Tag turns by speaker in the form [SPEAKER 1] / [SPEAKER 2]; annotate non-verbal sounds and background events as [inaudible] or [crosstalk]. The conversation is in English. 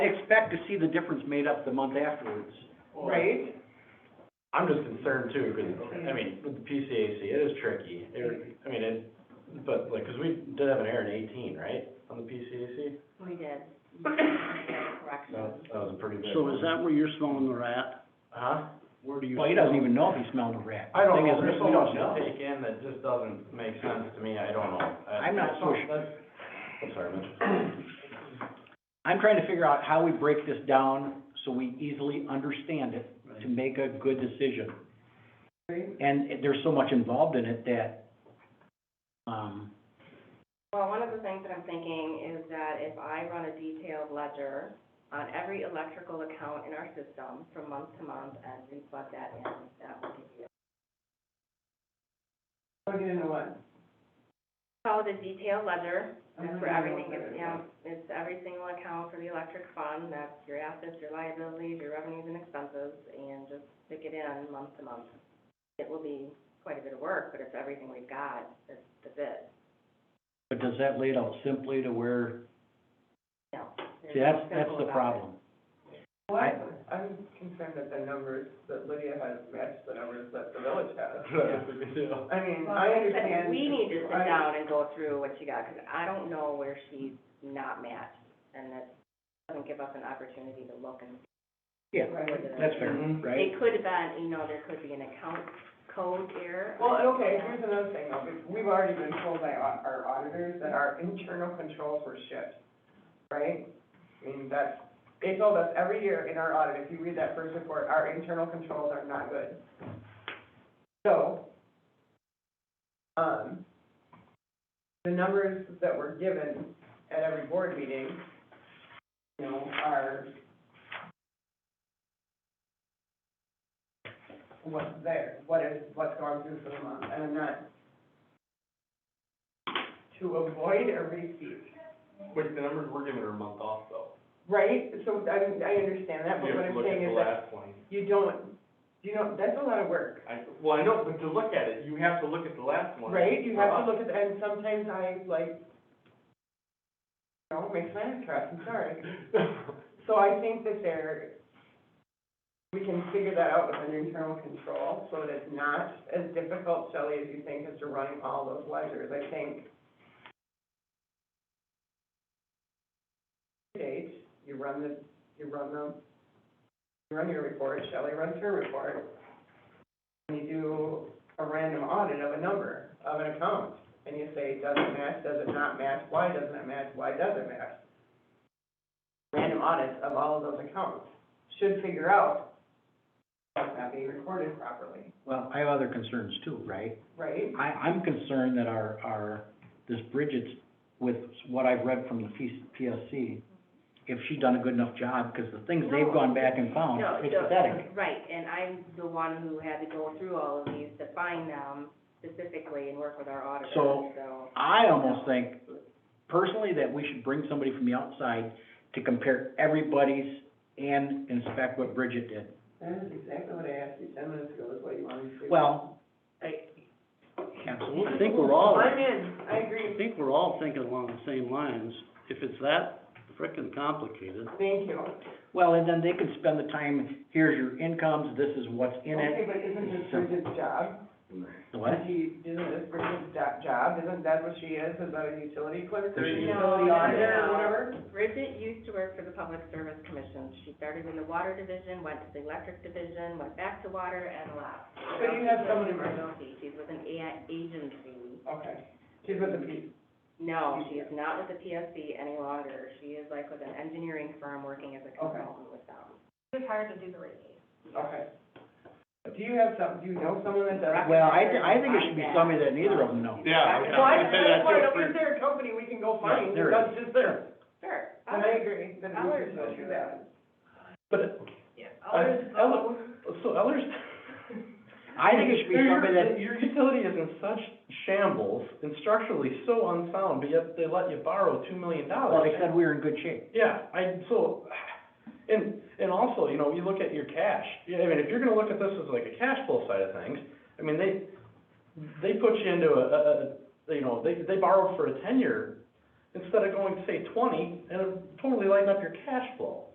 [SPEAKER 1] expect to see the difference made up the month afterwards.
[SPEAKER 2] right?
[SPEAKER 3] I'm just concerned too, because, I mean, with the PCAC, it is tricky. It- I mean, it, but like, because we did have an error in eighteen, right, on the PCAC?
[SPEAKER 4] We [coughs] did. Correction.
[SPEAKER 3] No, that was a pretty big.
[SPEAKER 5] So is that where you're smelling the rat?
[SPEAKER 3] Huh?
[SPEAKER 5] Where do you?
[SPEAKER 1] Well, he doesn't even know if he's smelling a rat.
[SPEAKER 3] I don't
[SPEAKER 1] Thing
[SPEAKER 3] know,
[SPEAKER 1] is,
[SPEAKER 3] there's
[SPEAKER 1] we
[SPEAKER 3] so
[SPEAKER 1] don't
[SPEAKER 3] much
[SPEAKER 1] know.
[SPEAKER 3] to take in that just doesn't make sense to me, I don't know. I-
[SPEAKER 1] I'm not so sure.
[SPEAKER 3] That's- I'm sorry, Mitch.
[SPEAKER 1] I'm trying to figure out how we break this down so we easily understand it, to make a good decision.
[SPEAKER 2] Right.
[SPEAKER 1] And it- there's so much involved in it that, um,
[SPEAKER 4] Well, one of the things that I'm thinking is that if I run a detailed ledger on every electrical account in our system from month to month and we plug that in, that will give you.
[SPEAKER 2] Plug it into what?
[SPEAKER 4] Call it a detailed ledger, that's
[SPEAKER 2] I'm
[SPEAKER 4] for
[SPEAKER 2] not
[SPEAKER 4] everything,
[SPEAKER 2] gonna
[SPEAKER 4] it's,
[SPEAKER 2] know
[SPEAKER 4] yeah, it's every single account for the electric fund, that's your assets, your liabilities, your revenues and expenses, and just stick it in month to month. It will be quite a bit of work, but it's everything we've got, that's, that's it.
[SPEAKER 1] but does that lay it out simply to where,
[SPEAKER 4] No.
[SPEAKER 1] see, that's, that's the problem.
[SPEAKER 3] [laughs]
[SPEAKER 2] Well, I'm concerned that the numbers that Lydia has match the numbers that the village has. I mean, I understand.
[SPEAKER 4] We need to sit
[SPEAKER 2] I-
[SPEAKER 4] down and go through what she got, because I don't know where she's not matched, and that doesn't give us an opportunity to look and.
[SPEAKER 1] Yeah,
[SPEAKER 2] Right.
[SPEAKER 1] That's fair,
[SPEAKER 3] Mhm.
[SPEAKER 1] right?
[SPEAKER 4] It could have been, you know, there could be an account code error.
[SPEAKER 2] Well, and okay, here's another thing though, because we've already been told by au- our auditors that our internal controls were shit, right? I mean, that's, they told us every year in our audit, if you read that first report, our internal controls are not good. So, um, the numbers that were given at every board meeting, you know, are what's there, what is, what's gone through for the month, and I'm not to avoid a repeat,
[SPEAKER 3] Which the numbers we're giving are a month off though.
[SPEAKER 2] right? So I, I understand that, but
[SPEAKER 3] You
[SPEAKER 2] what
[SPEAKER 3] have to
[SPEAKER 2] I'm
[SPEAKER 3] look at
[SPEAKER 2] saying
[SPEAKER 3] the
[SPEAKER 2] is that
[SPEAKER 3] last one.
[SPEAKER 2] you don't, you know, that's a lot of work,
[SPEAKER 3] I, well, I know, but to look at it, you have to look at the last one.
[SPEAKER 2] right? You have to
[SPEAKER 3] Uh-huh.
[SPEAKER 2] look at, and sometimes I like, you know, makes my head cross, I'm sorry.
[SPEAKER 3] Uh-huh. [laughs]
[SPEAKER 2] So I think that there, we can figure that out with an internal control, so that it's not as difficult, Shelley, as you think, as to running all those ledgers, I think. Date, you run the, you run the, you run your report, Shelley runs her report. And you do a random audit of a number, of an account, and you say, does it match, does it not match, why doesn't it match, why does it match? random audits of all of those accounts should figure out that's not being recorded properly,
[SPEAKER 1] Well, I have other concerns too, right?
[SPEAKER 2] right?
[SPEAKER 1] I, I'm concerned that our, our, this Bridget's, with what I've read from the P- PSC, if she done a good enough job, because the things they've gone back and found,
[SPEAKER 4] No,
[SPEAKER 1] Oh, it's
[SPEAKER 4] so-
[SPEAKER 1] pathetic.
[SPEAKER 4] Right, and I'm the one who had to go through all of these to find them specifically and work with our auditors,
[SPEAKER 1] So-
[SPEAKER 4] so.
[SPEAKER 1] I almost think personally that we should bring somebody from the outside to compare everybody's and inspect what Bridget did.
[SPEAKER 2] That is exactly what I asked you ten minutes ago, is what you wanted to do.
[SPEAKER 1] Well, I, absolutely, I think we're all,
[SPEAKER 2] I'm
[SPEAKER 1] I
[SPEAKER 2] in, I agree,
[SPEAKER 5] think we're all thinking along the same lines. If it's that frickin' complicated,
[SPEAKER 2] thank you.
[SPEAKER 1] well, and then they can spend the time, here's your incomes, this is what's in
[SPEAKER 2] Okay,
[SPEAKER 1] it.
[SPEAKER 2] but isn't this Bridget's job?
[SPEAKER 1] The What?
[SPEAKER 2] She, isn't this Bridget's do- job, isn't that what she is, is that a utility clerk or a
[SPEAKER 1] There she is.
[SPEAKER 2] utility
[SPEAKER 4] No,
[SPEAKER 2] auditor
[SPEAKER 4] no,
[SPEAKER 2] or
[SPEAKER 4] no.
[SPEAKER 2] whatever?
[SPEAKER 4] Bridget used to work for the Public Service Commission. She started in the water division, went to the electric division, went back to water and left.
[SPEAKER 2] But you have someone in
[SPEAKER 4] She's with
[SPEAKER 2] mind.
[SPEAKER 4] an She's with an a- agency.
[SPEAKER 2] Okay, she's with the P,
[SPEAKER 4] No, she is not with the PSC any longer. She is like with an engineering firm working as a consultant with them.
[SPEAKER 2] okay. Do you have some, do you know someone that does?
[SPEAKER 1] Well, I, thi- I think it should be somebody that neither of them know.
[SPEAKER 3] Yeah,
[SPEAKER 2] Well,
[SPEAKER 3] okay.
[SPEAKER 2] I,
[SPEAKER 3] I'd say that
[SPEAKER 2] that's why,
[SPEAKER 3] too,
[SPEAKER 2] at least they're a company we can go find,
[SPEAKER 1] there
[SPEAKER 2] that's just there.
[SPEAKER 4] Sure.
[SPEAKER 2] And I agree, then
[SPEAKER 4] I'll
[SPEAKER 2] we should go
[SPEAKER 4] just-
[SPEAKER 2] through that.
[SPEAKER 3] But,
[SPEAKER 4] Others
[SPEAKER 3] I- I
[SPEAKER 4] go.
[SPEAKER 3] so others.
[SPEAKER 1] I think it should be
[SPEAKER 3] Your-
[SPEAKER 1] somebody that,
[SPEAKER 3] Your utility is in such shambles and structurally so unsound, but yet they let you borrow two million dollars.
[SPEAKER 1] well, they said we were in good shape.
[SPEAKER 3] Yeah, I, so, and, and also, you know, you look at your cash, yeah, I mean, if you're gonna look at this as like a cash flow side of things, I mean, they, they put you into a, a, a, you know, they, they borrowed for a ten-year instead of going, say, twenty, and it totally lighting up your cash flow.